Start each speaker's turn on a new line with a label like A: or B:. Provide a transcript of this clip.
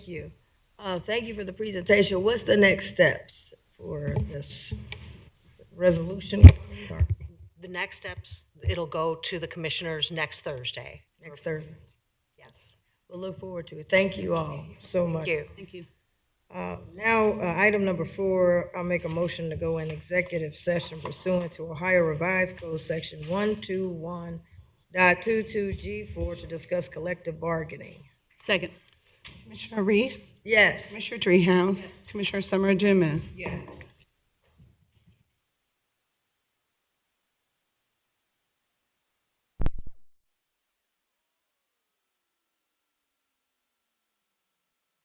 A: Thank you. Uh, Thank you for the presentation. What's the next steps for this resolution? Or
B: The next steps, it'll go to the commissioners next Thursday.
A: Next Thursday?
B: Yes.
A: We'll look forward to it. Thank you all so much.
B: Thank you.
A: Now, uh, item number four, I'll make a motion to go in executive session pursuant to Ohio Revised Code Section 121.22 G four to discuss collective bargaining.
C: Second.
D: Commissioner Reese,
A: Yes.
D: Commissioner Dreehouse, Commissioner Summer Dumas. Yes.